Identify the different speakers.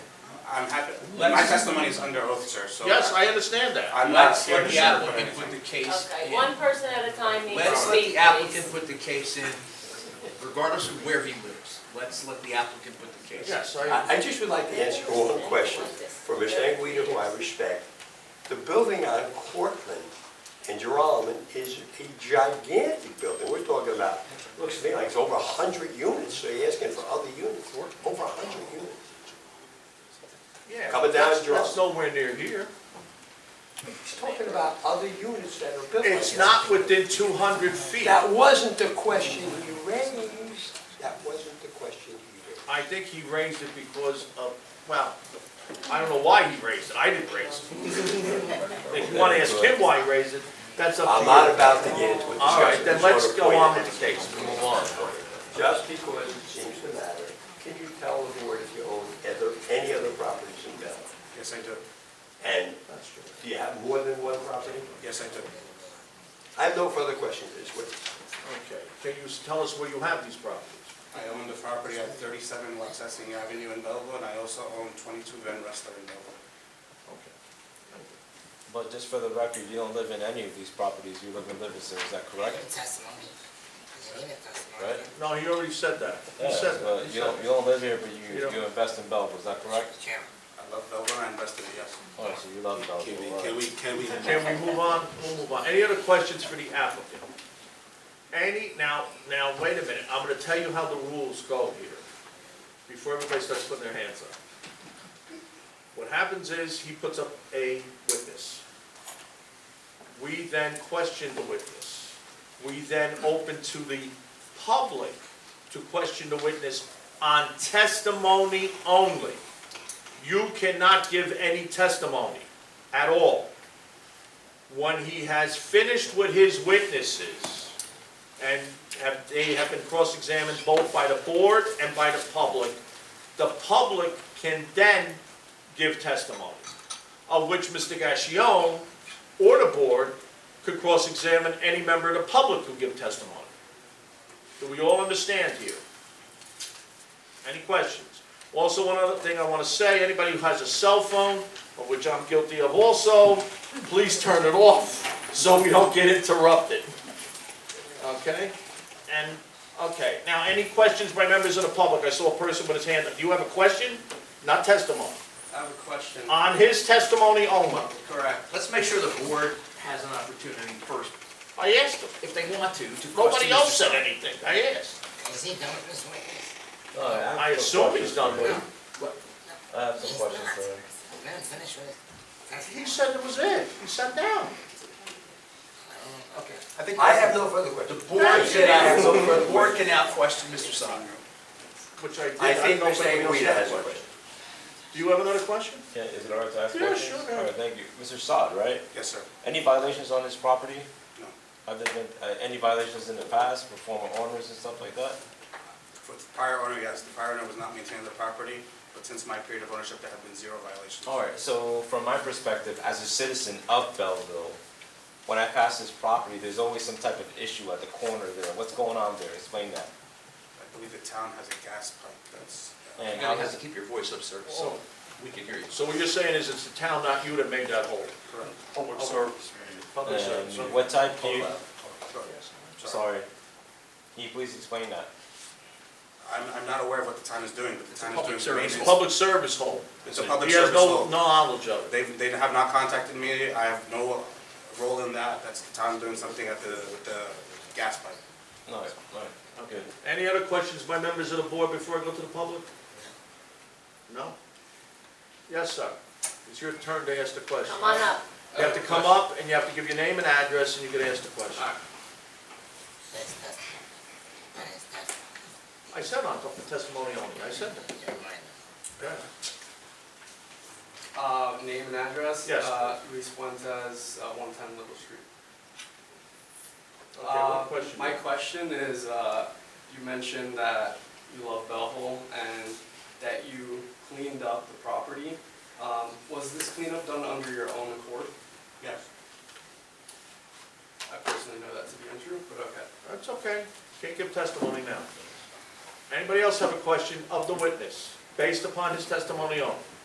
Speaker 1: I'm happy, my
Speaker 2: Let's-
Speaker 1: testimony is under oath, sir, so.
Speaker 3: Yes, I understand that.
Speaker 1: I'm not
Speaker 2: Let's
Speaker 1: scared
Speaker 2: let
Speaker 1: to
Speaker 2: the
Speaker 1: sure, but
Speaker 2: applicant put
Speaker 1: anything.
Speaker 2: the case
Speaker 4: Okay,
Speaker 2: in.
Speaker 4: one person at a time needs to
Speaker 2: Let's let
Speaker 4: speak,
Speaker 2: the applicant
Speaker 4: please.
Speaker 2: put the case in, regardless of where he lives. Let's let the applicant put the case in.
Speaker 3: Yes, I,
Speaker 5: I I just would like to ask you all a question for Ms. Anguita, who I respect. The building on Cortlandt in Geralman is a gigantic building. We're talking about, looks to me like it's over 100 units, so you're asking for other units, over 100 units.
Speaker 3: yeah.
Speaker 5: Coming down
Speaker 3: that's-
Speaker 5: Gerard.
Speaker 3: That's nowhere near here.
Speaker 5: He's talking about other units that are built.
Speaker 3: It's
Speaker 5: like
Speaker 3: not
Speaker 5: that.
Speaker 3: within two hundred feet.
Speaker 5: That wasn't the question you raised. That wasn't the question you raised.
Speaker 3: I think he raised it because of, well, I don't know why he raised it, I didn't raise it. If you wanna ask him why he raised it, that's up to you.
Speaker 5: I'm not about to get into a discussion.
Speaker 3: All right, then
Speaker 5: It's not
Speaker 3: let's
Speaker 5: a
Speaker 3: go
Speaker 5: point
Speaker 3: on
Speaker 5: of
Speaker 3: with the case.
Speaker 5: education. Just because it seems to matter, can you tell the board if you own other, any other properties in Belleville?
Speaker 1: Yes, I do,
Speaker 5: And do you have more than one property?
Speaker 1: yes, I do.
Speaker 5: I have no further questions this witness.
Speaker 3: Okay, can you s- tell us where you have these properties?
Speaker 1: I own the property at 37 Waxahachie Avenue in Belleville, and I also own 22 Van Rester in Belleville.
Speaker 3: Okay.
Speaker 6: But just for the record, you don't live in any of these properties, you live in Livingston, is that correct?
Speaker 7: testimony. You need a testimony.
Speaker 6: Right?
Speaker 3: No, he already said that, he said
Speaker 6: Uh,
Speaker 3: that, he
Speaker 6: You
Speaker 3: said
Speaker 6: don't,
Speaker 3: that.
Speaker 6: you don't live here, but
Speaker 3: You
Speaker 6: you,
Speaker 3: don't-
Speaker 6: you invest in Belleville, is that correct?
Speaker 7: Chairman.
Speaker 1: I love Belleville, and I invest in it, yes.
Speaker 6: Oh, so you love
Speaker 1: Can
Speaker 6: Belleville,
Speaker 1: we,
Speaker 6: all
Speaker 1: can we,
Speaker 6: right.
Speaker 1: can we?
Speaker 3: Can we move on? We'll move on. Any other questions for the applicant? Any, now, now, wait a minute, I'm gonna tell you how the rules go here, before everybody starts putting their hands up. What happens is, he puts up a witness. We then question the witness. We then open to the public to question the witness on testimony only. You cannot give any testimony at all when he has finished with his witnesses, and have, they have been cross-examined both by the board and by the public, the public can then give testimony, of which Mr. Gassion or the board could cross-examine any member of the public who give testimony. Do we all understand here? Any questions? Also, one other thing I want to say, anybody who has a cell phone, of which I'm guilty of also, please turn it off so we don't get interrupted. Okay? And, okay, now, any questions by members of the public? I saw a person with his hand up. Do you have a question? Not testimony.
Speaker 1: I have a question.
Speaker 3: On his testimony only.
Speaker 1: Correct.
Speaker 2: Let's make sure the board has an opportunity first,
Speaker 3: I asked him.
Speaker 2: if they want to, to question.
Speaker 3: Nobody
Speaker 2: Mr.
Speaker 3: else said
Speaker 2: Stein.
Speaker 3: anything. I asked.
Speaker 7: Is he done with this witness?
Speaker 6: All right, have
Speaker 3: I
Speaker 6: some
Speaker 3: assume
Speaker 6: questions
Speaker 3: he's done
Speaker 6: for you.
Speaker 3: with it.
Speaker 6: I have
Speaker 7: He's
Speaker 6: some questions
Speaker 7: not.
Speaker 6: for you.
Speaker 7: He's not finished with his
Speaker 3: He said
Speaker 7: testimony.
Speaker 3: it was it. He sat down.
Speaker 2: Okay, I think.
Speaker 5: I have no further
Speaker 2: The
Speaker 5: questions.
Speaker 2: board
Speaker 3: Thank you.
Speaker 2: can out, the board can out question Mr. Stein.
Speaker 3: Which I did.
Speaker 5: I think
Speaker 3: don't know if
Speaker 5: Mr.
Speaker 3: anybody else
Speaker 5: Anguita
Speaker 3: had a
Speaker 5: has a
Speaker 3: question.
Speaker 5: question.
Speaker 3: Do you have another question?
Speaker 6: Yeah, is it all right to ask
Speaker 3: Yeah,
Speaker 6: questions?
Speaker 3: sure, go
Speaker 6: All right,
Speaker 3: ahead.
Speaker 6: thank you. Mr. Sod, right?
Speaker 1: Yes, sir.
Speaker 6: Any violations on his property?
Speaker 1: No.
Speaker 6: Have there been, uh, any violations in the past, for former owners and stuff like that?
Speaker 1: For the prior owner, yes, the prior owner was not maintaining the property, but since my period of ownership, there have been zero violations.
Speaker 6: All right, so from my perspective, as a citizen of Belleville, when I pass this property, there's always some type of issue at the corner there. What's going on there? Explain that.
Speaker 1: I believe the town has a gas pipe that's. uh,
Speaker 6: And
Speaker 2: You
Speaker 6: how
Speaker 2: gotta have
Speaker 6: does,
Speaker 2: to keep your voice up, sir, so we can hear you.
Speaker 3: So what you're saying is it's the town, not you, that made that hole?
Speaker 1: Correct.
Speaker 3: Public service. Public service.
Speaker 6: and Uh, what type uh, can you,
Speaker 1: Sure.
Speaker 6: sorry, can you please explain that?
Speaker 1: I'm, I'm not aware of what the town is doing, but the town is
Speaker 2: public
Speaker 1: doing
Speaker 6: service.
Speaker 1: maintenance.
Speaker 3: Public service hole.
Speaker 1: It's a public
Speaker 3: He has
Speaker 1: service
Speaker 3: no
Speaker 1: hole.
Speaker 3: knowledge of it.
Speaker 1: They, they have not contacted me, I have no role in that, that's the town doing something at the, with the gas pipe.
Speaker 6: No, all right, okay.
Speaker 3: Any other questions by members of the board before I go to the public? No? Yes, sir. It's your turn to ask the question.
Speaker 4: Come on up.
Speaker 3: You have to come up and you have to give your name and address and you can ask the question.
Speaker 7: His testimony. Not his testimony.
Speaker 3: I said on testimony only, I said that.
Speaker 7: Your mind.
Speaker 3: Yeah.
Speaker 8: Uh, name and address?
Speaker 3: Yes.
Speaker 8: Uh, Luis Fuentes, uh, one ten Little Street.
Speaker 3: Okay, what
Speaker 8: Uh,
Speaker 3: question?
Speaker 8: My question is, uh, you mentioned that you love Bellhole and that you cleaned up the property. Um, was this cleanup done under your own accord?
Speaker 1: Yes.
Speaker 8: I personally know that to be untrue, but okay.
Speaker 3: That's okay, can't give testimony now. Anybody else have a question of the witness, based upon his testimony only?